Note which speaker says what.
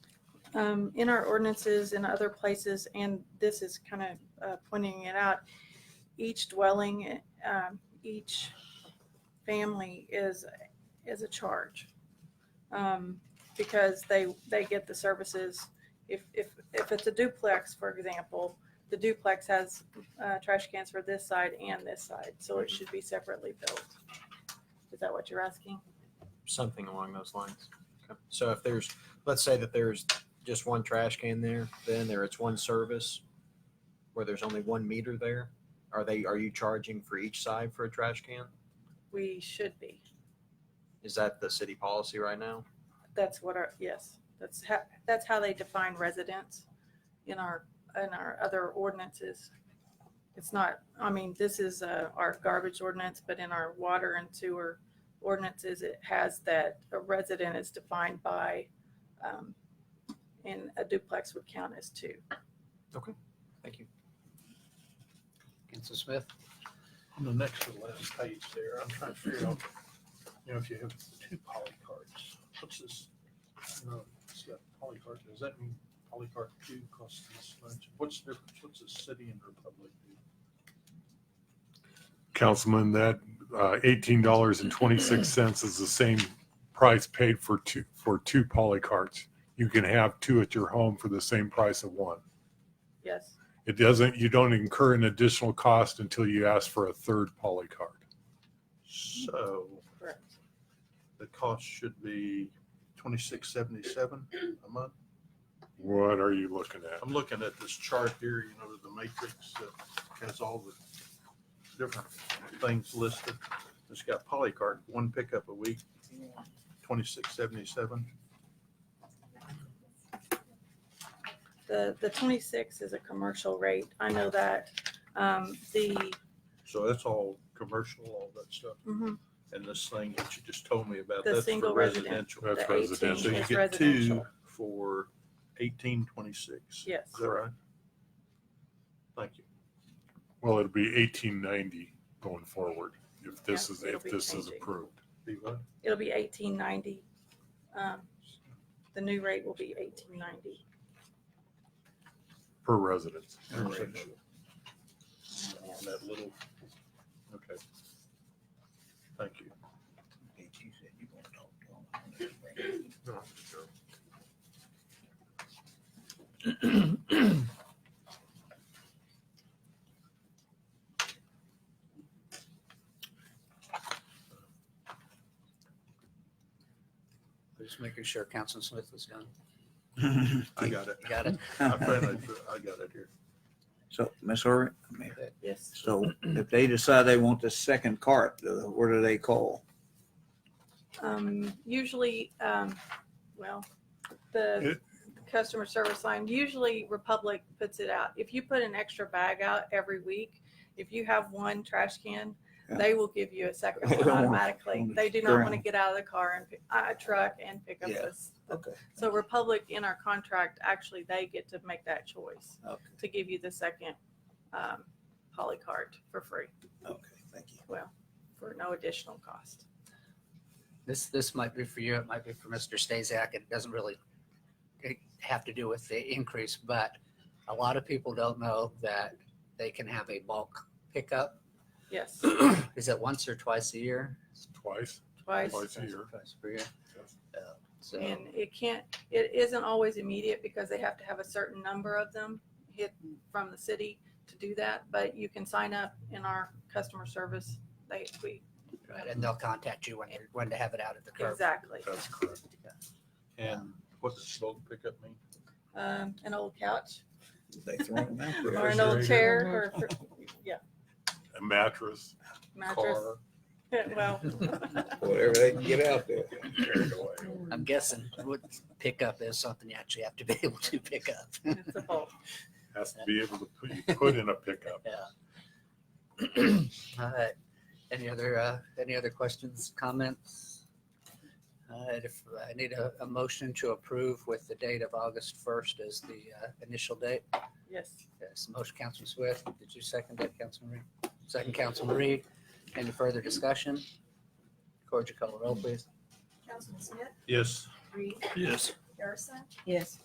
Speaker 1: um, in our ordinances in other places, and this is kind of uh, pointing it out, each dwelling, um, each family is, is a charge. Um, Because they, they get the services, if, if, if it's a duplex, for example, the duplex has uh, trash cans for this side and this side, so it should be separately built. Is that what you're asking?
Speaker 2: something along those lines. Okay. So if there's, let's say that there's just one trash can there, then there it's one service where there's only one meter there. Are they, are you charging for each side for a trash can?
Speaker 1: We should be.
Speaker 2: Is that the city policy right now?
Speaker 1: That's what our, yes, that's how, that's how they define residents in our, in our other ordinances. It's not, I mean, this is uh, our garbage ordinance, but in our water and sewer ordinances, it has that a resident is defined by, um, and a duplex would count as two.
Speaker 2: Thank you.
Speaker 3: Council Smith?
Speaker 4: On the next to the last page there, I'm trying to figure out, you know, if you have two poly cards, what's this? No, it's got poly card, does that mean poly card two costs this much? What's the difference, what's a city and republic do?
Speaker 5: Councilman, that uh, eighteen dollars and twenty-six cents is the same price paid for two, for two poly carts. You can have two at your home for the same price of one.
Speaker 1: Yes,
Speaker 5: It doesn't, you don't incur an additional cost until you ask for a third poly cart.
Speaker 4: So
Speaker 1: correct.
Speaker 4: the cost should be twenty-six seventy-seven a month?
Speaker 5: What are you looking at?
Speaker 4: I'm looking at this chart here, you know, the matrix that has all the different things listed. It's got polycart, one pickup a week, twenty-six seventy-seven.
Speaker 1: The, the twenty-six is a commercial rate, I know that. Um, The,
Speaker 4: So that's all commercial, all that stuff.
Speaker 1: mhm,
Speaker 4: And this thing that you just told me about,
Speaker 1: The
Speaker 4: that's
Speaker 1: single
Speaker 4: for
Speaker 1: resident.
Speaker 4: residential.
Speaker 5: That's
Speaker 1: the eighteen
Speaker 4: So
Speaker 5: residential.
Speaker 4: you
Speaker 1: is
Speaker 4: get two
Speaker 1: residential.
Speaker 4: for eighteen twenty-six.
Speaker 1: Yes.
Speaker 4: Is that right? Thank you.
Speaker 5: Well, it'll be eighteen ninety going forward if this
Speaker 1: Yeah,
Speaker 5: is,
Speaker 1: it'll
Speaker 5: if
Speaker 1: be
Speaker 5: this is
Speaker 1: changing.
Speaker 5: approved.
Speaker 4: Be what?
Speaker 1: It'll be eighteen ninety. Um, The new rate will be eighteen ninety.
Speaker 5: per residence.
Speaker 4: Residential. On that little, okay. Thank you.
Speaker 3: Just making sure Council Smith was done.
Speaker 4: I got it.
Speaker 3: You got it?
Speaker 4: I finally, I got it here.
Speaker 6: So, Ms. Irvin,
Speaker 1: Yes.
Speaker 6: so if they decide they want the second cart, uh, what do they call?
Speaker 1: Um, Usually, um, well, the
Speaker 5: It-
Speaker 1: customer service line, usually Republic puts it out. If you put an extra bag out every week, if you have one trash can,
Speaker 6: Yeah.
Speaker 1: they will give you a second
Speaker 6: They
Speaker 1: one
Speaker 6: don't want-
Speaker 1: automatically.
Speaker 6: want
Speaker 1: They do not want to
Speaker 6: ground.
Speaker 1: get out of the car and, pick- uh, a truck and pick up
Speaker 6: Yeah.
Speaker 1: this.
Speaker 6: Okay.
Speaker 1: So Republic in our contract, actually, they get to make that choice
Speaker 6: Okay,
Speaker 1: to give you the second um, poly card for free.
Speaker 6: okay, thank you.
Speaker 1: for no additional cost.
Speaker 3: This, this might be for you, it might be for Mr. Stazak. It doesn't really have to do with the increase, but a lot of people don't know that they can have a bulk pickup.
Speaker 1: Yes,
Speaker 3: Is it once or twice a year?
Speaker 5: Twice,
Speaker 1: twice.
Speaker 5: Twice a year.
Speaker 3: Twice per year. Uh, So,
Speaker 1: And it can't, it isn't always immediate because they have to have a certain number of them hit from the city to do that. But you can sign up in our customer service. They, we,
Speaker 3: right, and they'll contact you when, you're- when to have it out at the curb.
Speaker 1: exactly.
Speaker 4: That's correct. And what does bulk pickup mean?
Speaker 1: Um, an old couch
Speaker 6: They throw them out
Speaker 1: or
Speaker 6: there.
Speaker 1: an old chair or, yeah,
Speaker 5: a mattress,
Speaker 1: mattress.
Speaker 4: Car?
Speaker 1: Well,
Speaker 6: Whatever they can get out there.
Speaker 5: carried away.
Speaker 3: I'm guessing would pickup is something you actually have to be able to pick up.
Speaker 1: it's a bulk.
Speaker 5: Has to be able to put, you put in a pickup.
Speaker 3: All right. Any other, uh, any other questions, comments? All right, if I need a, a motion to approve with the date of August first as the uh, initial date.
Speaker 1: Yes.
Speaker 3: Yes, motion, Councilman Swift. Did you second that, Councilman Reed? Second, Councilman Reed. Any further discussion? Cordia, call the roll, please.
Speaker 7: Councilman Smith,
Speaker 4: Yes.
Speaker 7: Reed,
Speaker 4: Yes.
Speaker 7: Harrison,
Speaker 8: Yes.